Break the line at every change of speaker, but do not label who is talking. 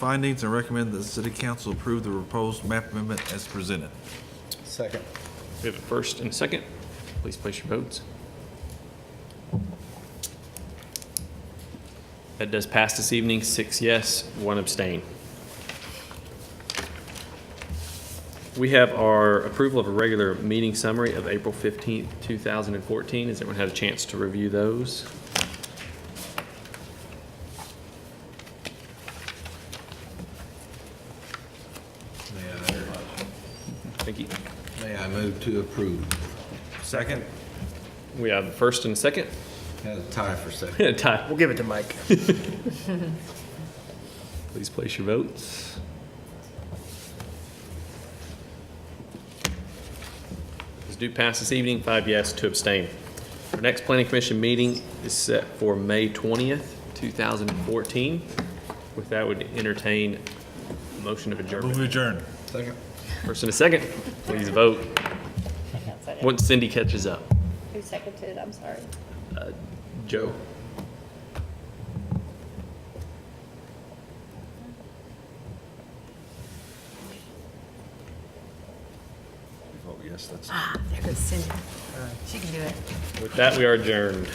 findings and recommend that the city council approve the proposed map amendment as presented.
Second.
We have a first and a second. Please place your votes. That does pass this evening, six yes, one abstain. We have our approval of a regular meeting summary of April 15th, 2014. Has everyone had a chance to review those? Thank you.
May I move to approve?
Second?
We have a first and a second.
Had a tie for second.
Ty,
We'll give it to Mike.
Please place your votes. This do pass this evening, five yes, two abstain. Our next planning commission meeting is set for May 20th, 2014. With that, would entertain a motion of
Move
adjournment.
adjourned.
Second.
First and a second, please vote, once Cindy catches up.
Who seconded it? I'm sorry.
Joe?
Vote yes, that's.
Ah, there goes Cindy. She can do it.
With that, we are adjourned.